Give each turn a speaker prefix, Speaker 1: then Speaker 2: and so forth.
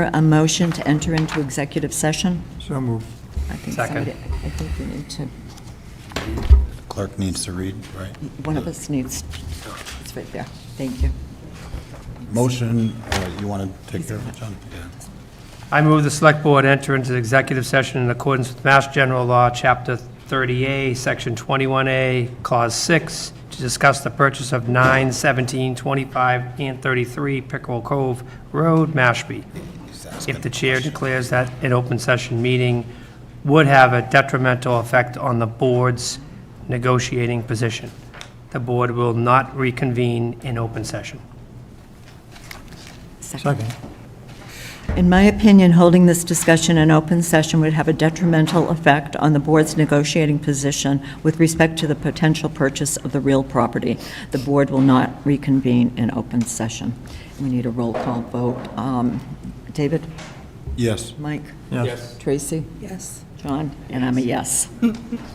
Speaker 1: a motion to enter into executive session?
Speaker 2: So moved.
Speaker 1: I think
Speaker 3: Second.
Speaker 1: somebody- I think we need to,
Speaker 4: Clerk needs to read, right?
Speaker 1: one of us needs, it's right there. Thank you.
Speaker 4: Motion, uh, you want to take care of it, John? Yeah.
Speaker 3: I move the Select Board enter into the executive session in accordance with Mass General Law, Chapter 30A, Section 21A, Clause 6, to discuss the purchase of 9, 17, 25, and 33 Pickerel Cove Road, Mashpee. If the chair declares that an open session meeting would have a detrimental effect on the board's negotiating position, the board will not reconvene in open session.
Speaker 2: Second.
Speaker 1: In my opinion, holding this discussion in open session would have a detrimental effect on the board's negotiating position with respect to the potential purchase of the real property. The board will not reconvene in open session. We need a roll call vote. Um, David?
Speaker 4: Yes.
Speaker 1: Mike?
Speaker 2: Yes.
Speaker 1: Tracy? Yes. John? And I'm a yes.